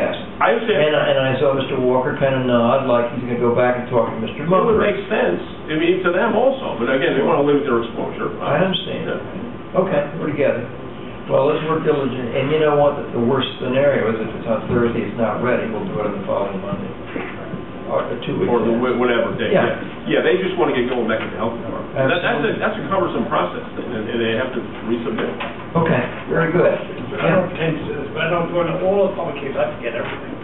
I would say, And uh, I, it and I saw Mr. Walker kind of nod, like he's gonna go back and talk to Mr. would Mumford. make sense, I mean, to them also, but again, they want to limit their exposure. I understand. Okay, we're together. Well, let's work diligent, and you know what, the worst scenario is if it's on Thursday, it's not ready, we'll do it on the following Monday. Or the two weeks. Or the in. wh- whatever day, Yeah. yeah. Yeah, they just want to get going back to the health department. That- That's a, Absolutely. that's a cumbersome process, and and they have to resubmit. Okay, very good. But I don't pretend to do this, but I don't go into all the public cases, I forget everything.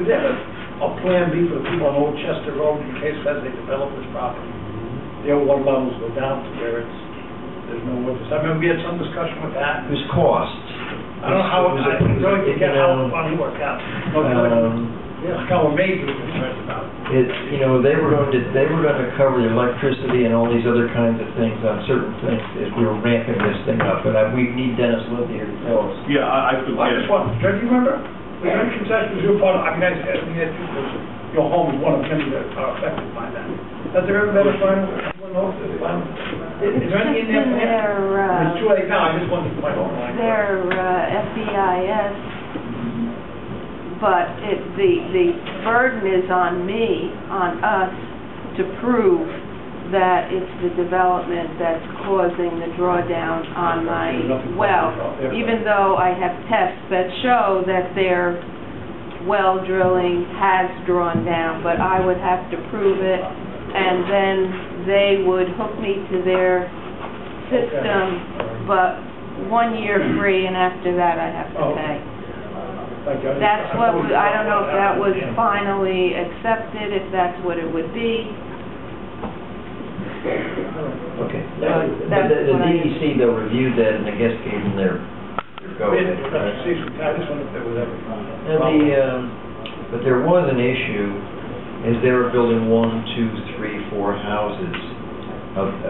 Would they have a, a plan B for the people on Old Chester Road in case as they develop this property? Their water levels go down to where it's, there's no water, I remember we had some discussion with that. It was costs. I don't know how, It was- it I was- don't it, even get you how know, it finally worked out. Um, Yeah, like how amazed we were concerned about it. it, you know, they were going to, they were going to cover the electricity and all these other kinds of things on certain things as we were ramping this thing up, but I, we need Dennis Lynn here to tell us. Yeah, I I could I get it. just want, do you remember? The rent concessions you were part of, I mean, I said, I mean, that you was- your home is one of many that are affected by that. Has there ever been a final, one of those final? Is there any in there? Their, uh, It's too late now, I just wanted to find out. their uh, FEIS, but it, the, the burden is on me, on us, to prove that it's the development that's causing the drawdown on my well, even though I have tests that show that their well drilling has drawn down, but I would have to prove it, and then they would hook me to their system but one year free, and after that I have to Oh. pay. Like, I just- That's what, thought we- we I don't know if that was Yeah. finally accepted, if that's what it would be. Okay. Uh, that's The, the what I- DEC though reviewed that and I guess gave them their, their go We ahead. didn't have to see, I just wondered if there was ever. a final. And the, um, but there was an issue, is they were building one, two, three, four houses of, uh,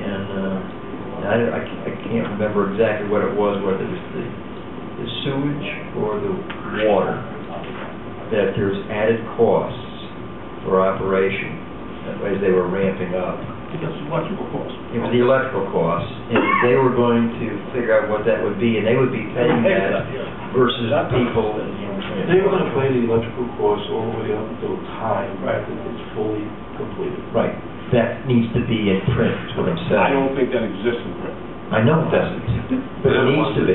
and, uh, I, I ca- I can't remember exactly what it was, whether it was the the sewage or the water, that there's added costs for operation, that way they were ramping up. Because electrical costs. It was the electrical costs, and they were going to figure out what that would be, and they would be paying that versus people and. They were gonna pay the electrical costs all the way up until the time that it's fully completed. Right, that needs to be in print, is what I'm I saying. don't think that exists in print. I know it doesn't, but it needs to be.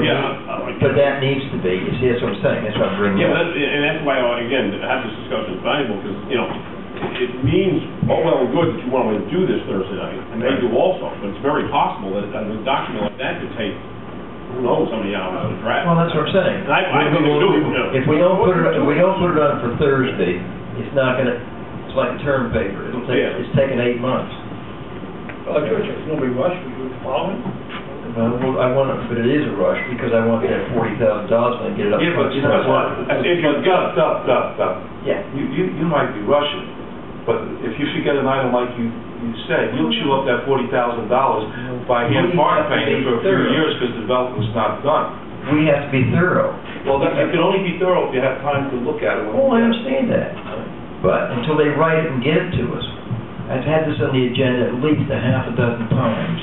Yeah. But that needs to be, you see, that's what I'm saying, that's what I'm bringing Yeah, up. but that- and that's why, uh, again, to have this discussion is valuable, because, you know, it- it means all well and good that you want to do this Thursday night, and they do also, but it's very possible that that a document like that could take, who knows, how many hours to draft. Well, that's what I'm saying. And I, I think we do, you know. If we don't put it, if we don't put it on for Thursday, it's not gonna, it's like term paper, it'll take, Yeah. it's taken eight months. Electricity, there's nobody rushed, we do it following. Well, well, I want it, but it is a rush, because I want that forty thousand dollars when I get it up. Yeah, but front. you know what? If you, stop, stop, stop, stop. Yeah. You, you, you might be rushing, but if you forget an item like you, you said, you'll chew up that forty thousand dollars by hand We have to part be paying for a few thorough. years because development's not done. We have to be thorough. Well, that, you can only be thorough if you have time to look at it. when- Oh, I understand that, but until they write it and give it to us, I've had this on the agenda at least a half a dozen times,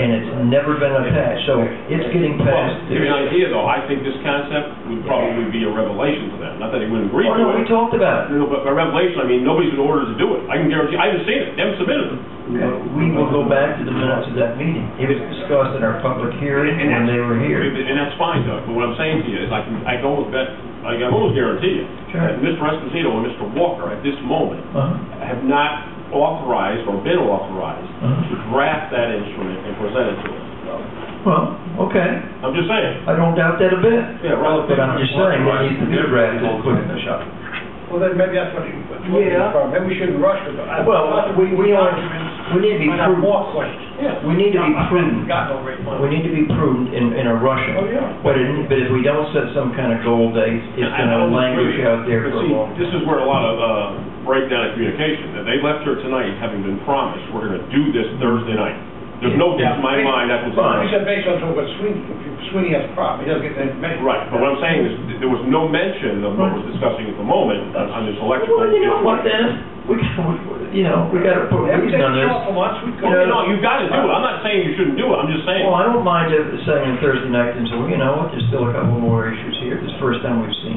and it's never been attached, so it's getting Well, past. to give you an this. idea, though, I think this concept would probably be a revelation to them, not that they wouldn't agree Oh, no, to we it. talked about it. No, but by revelation, I mean, nobody's been ordered to do it, I can guarantee, I haven't seen it, they haven't submitted it. We will go back to the minutes of that meeting. It was discussed in our public hearing when they were here. And that's fine, Doug, but what I'm saying to you is I can, I can almost bet, I can almost guarantee you, Sure. that Mr. Esposito and Mr. Walker at this moment Uh-huh. have not authorized or been authorized Uh-huh. to draft that instrument and present it to us. Well, okay, I'm just saying. I don't doubt that a bit. Yeah, relative. But uh, I'm just saying, it needs to be drafted quick. Well, then maybe that's what you, what you Yeah. were, maybe we shouldn't rush it. but I- Well, we, we are, we need to be Might have prudent. more questions. We need to be prudent. Got no rate money. We need to be prudent in, in our rushing. Oh, yeah. But in, but if we don't set some kind of goal date, it's I- I gonna don't languish agree. out there But for a see, long. This is where a lot of uh, breakdown in communication, that they left here tonight having been promised, we're going to do this Thursday night. There's no doubt in my mind that was. We said based on what Sweeney, if Sweeney has a problem, he doesn't get the information. Right, but what I'm saying is, th- there was no mention of what was discussing at the moment on on this electrical. Well, you know what, Dennis, we, we- you know, we gotta put Every reason day on this. you show up for lunch, we go. Well, you know, you've got to do it. I'm not saying you shouldn't do it. I'm just saying. Well, I don't mind if saying on Thursday night, and so, you know, what, there's still a couple more issues here, this is the first time we've seen